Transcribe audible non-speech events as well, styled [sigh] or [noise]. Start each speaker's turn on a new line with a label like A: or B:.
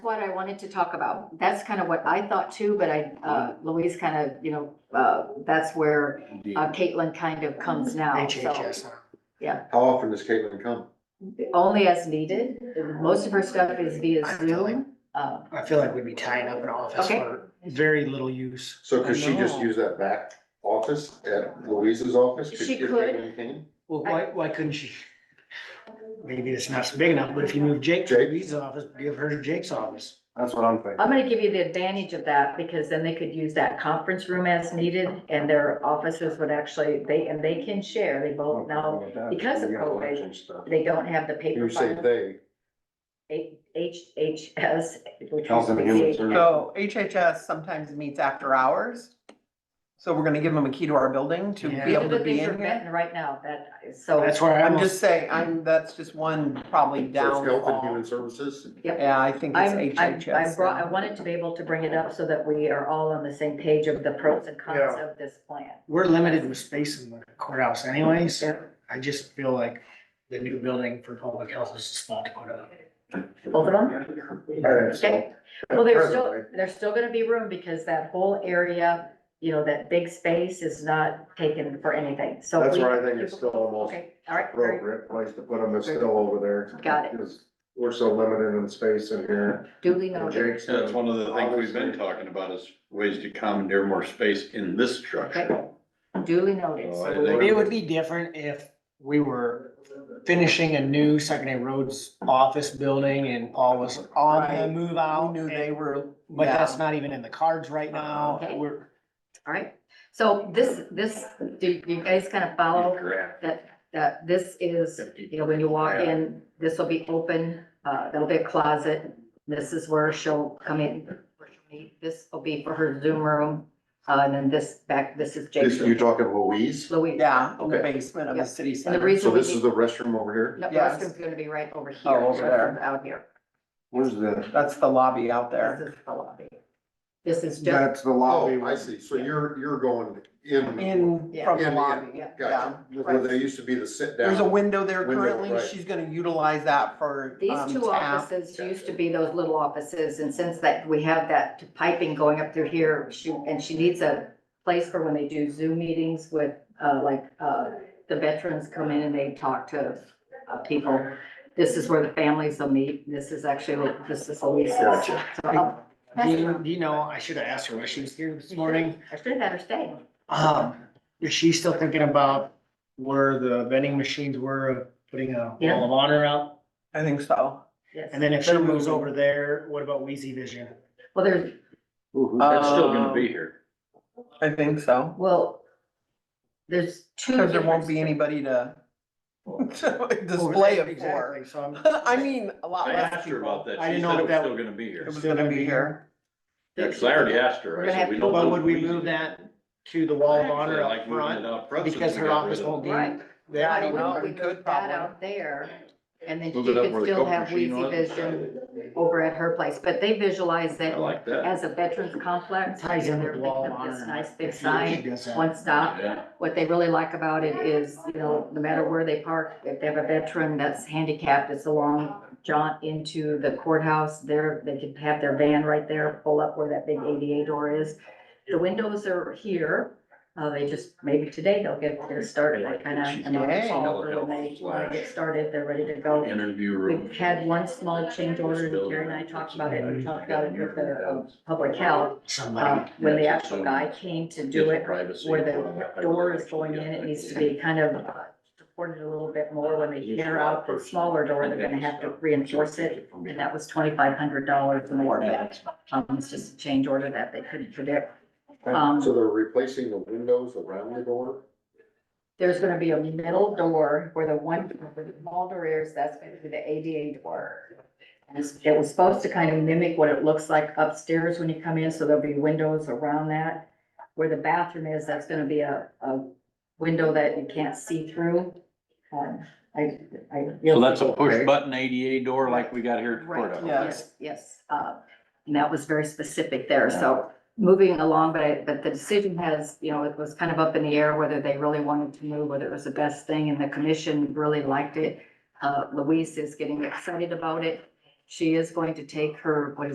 A: what I wanted to talk about. That's kind of what I thought too, but I, uh, Louise kind of, you know, uh, that's where uh, Caitlin kind of comes now, so.
B: HHS.
C: How often does Caitlin come?
A: Only as needed. Most of her stuff is via Zoom. Uh,
B: I feel like we'd be tying up an office
A: Okay.
B: for very little use.
C: So could she just
A: No.
C: use that back office at Louise's office?
A: She
C: if
A: could.
C: Caitlin came?
B: Well, why, why couldn't she? Maybe it's not so big enough, but if you move Jake to
C: Jake?
B: Reed's office, give her to Jake's office.
C: That's what I'm thinking.
A: I'm gonna give you the advantage of that because then they could use that conference room as needed and their offices would actually, they, and they can share. They both now, because of probation, they don't have the paper
C: You say
A: file,
C: they.
A: HHS, which is
C: Council of Human
A: the
C: Services.
D: So HHS sometimes meets after hours. So we're gonna give them a key to our building to be
B: Yeah.
D: able to
A: But
D: be
A: these are
D: in
A: met
D: here.
A: right now, that, is- so.
B: That's where I
D: I'm
B: almost,
D: just saying, I'm, that's just one probably
C: So it's Health and
D: downfall.
C: Human Services?
D: Yeah, I think
A: I'm,
D: it's
A: I'm, I brought, I
D: HHS.
A: wanted to be able to bring it up so that we are all on the same page of the pros and cons of this plan.
B: we're limited with space in the courthouse anyway, so I just feel like the new building for public health is just not to put up.
A: Both of them? Okay. Well, there's still, there's still gonna be room because that whole area, you know, that big space is not taken for anything, so.
E: That's
A: we-
E: where I think it's still almost
A: Okay, all right, very-
E: appropriate place to put them is still over there.
A: Got it.
E: Because we're so limited in space in here.
A: duly
E: And
A: noted.
E: Jake's
F: That's
E: done-
F: one of the things we've been talking about is ways to commandeer more space in this structure.
A: Duly noted.
F: Oh, I
A: So
F: didn't-
B: It would be different if we were finishing a new secondary roads office building and Paul was on the
D: Right.
B: move
D: I
B: out.
D: knew they were.
B: But
D: yeah.
B: that's not even in the cards right now.
A: Uh, Okay.
B: We're,
A: All right, so this, this, do you guys kind of follow that, that this is, you know, when you walk in, this will be open, uh, there'll be a closet. This is where she'll come in, where she'll meet. this will be for her Zoom room, uh, and then this back, this is
C: This, you're
A: Jake's,
C: talking Louise?
A: Louise.
D: Yeah, in the
C: Okay.
D: basement of the
A: Yep.
D: city
A: And the
D: center.
A: reason
C: So
A: we
C: this
A: need,
C: is the restroom over here?
A: no, the
D: Yes.
A: restroom's gonna be right over here.
D: Oh, over there.
A: restrooms Out here.
E: Where's the,
D: That's the lobby out there.
A: This is the lobby. This is just,
E: that's the lobby.
C: Oh, I see. So you're, you're going in,
D: In,
A: Yeah.
D: from the
C: Yeah, yeah.
D: lobby, yeah.
C: gotcha. Where there used to be the sit down.
D: There's a window there
C: Window,
D: currently.
C: right.
D: She's gonna utilize that for,
A: these
D: um,
A: two
D: tap.
A: offices used to be those little offices, and since that, we have that piping going up through here, she, and she needs a place for when they do Zoom meetings with, uh, like, uh, the veterans come in and they talk to, uh, people. This is where the families will meet. This is actually, this is Elise's. So
C: Gotcha.
A: I'll-
B: do you, do you know, I should have asked her when she was here this morning.
A: I should have had her stay.
B: Um, is she still thinking about where the vending machines were, of putting a wall of honor out?
D: I think so.
A: Yes.
B: And then if she
D: They're
B: moves
D: moving.
B: over there, what about Wheezy Vision?
A: Well, there's,
F: That's still gonna be here.
D: I think so.
A: well, there's two.
D: Cause there won't be
A: different-
D: anybody to [laughs] to display it for. [laughs]
B: Exactly, so I'm.
D: I mean, a lot
F: I
D: less
F: asked her
D: people.
F: about that.
B: I
F: She
B: didn't know if
F: said it was
B: that-
F: still gonna be
D: It
F: here.
D: was gonna be here.
F: Yeah, cause I already asked
A: We're
F: her.
A: gonna
F: I
A: have
F: said, we
A: to-
F: don't.
B: But
F: want
B: would we
F: Louise
B: move
F: to-
B: that to the wall of
F: Actually,
B: honor
F: I
B: up
F: like moving it
B: front?
F: out front since
B: Because
F: we
B: her
F: got rid
B: office
F: of
B: won't be,
A: Right.
B: they
D: I
A: Why
B: already
D: don't
B: know.
A: wouldn't
D: know.
A: we
D: We could
A: move that
D: probably.
A: out there? And then she
F: Move it up
A: could
F: where the
A: still
F: Coke
A: have
F: machine
A: Wheezy
F: was.
A: Vision over at her place, but they visualize
F: I
A: it
F: like that.
A: as a veterans complex.
B: Ties in with
A: They're
B: the wall of
A: picking up
B: honor.
A: This nice big
B: If she- if she
A: sign,
B: does that.
A: one stop.
F: Yeah.
A: What they really like about it is, you know, no matter where they park, if they have a veteran that's handicapped, it's a long jaunt into the courthouse. There, they can have their van right there, pull up where that big ADA door is. The windows are here. Uh, they just, maybe today they'll get, they're started, I kind of, and
D: Yay.
A: they'll call for when they when they get started, they're ready to go.
F: Interview room.
A: We've had one small change order, and Gary and I talked about it, we talked about it with the, uh, public health.
B: Somebody,
A: Uh, when the actual guy came to do it, where the door is going in, it needs to be kind of uh, supported a little bit more. When they tear out the smaller door, they're gonna have to reinforce it, and that was twenty-five hundred dollars more. Um, it's just a change order that they couldn't predict. Um,
C: So they're replacing the windows around the door?
A: there's gonna be a middle door where the one, where the small door is, that's gonna be the ADA door. And it's- it was supposed to kind of mimic what it looks like upstairs when you come in, so there'll be windows around that. Where the bathroom is, that's gonna be a, a window that you can't see through. Um, I, I.
F: So that's a push button ADA door like we got here at the
A: Right,
F: courthouse.
A: yes, yes, uh, and that was very specific there, so moving along, but I, but the decision has, you know, it was kind of up in the air whether they really wanted to move, whether it was the best thing, and the commission really liked it. Uh, Louise is getting excited about it, she is going to take her, what is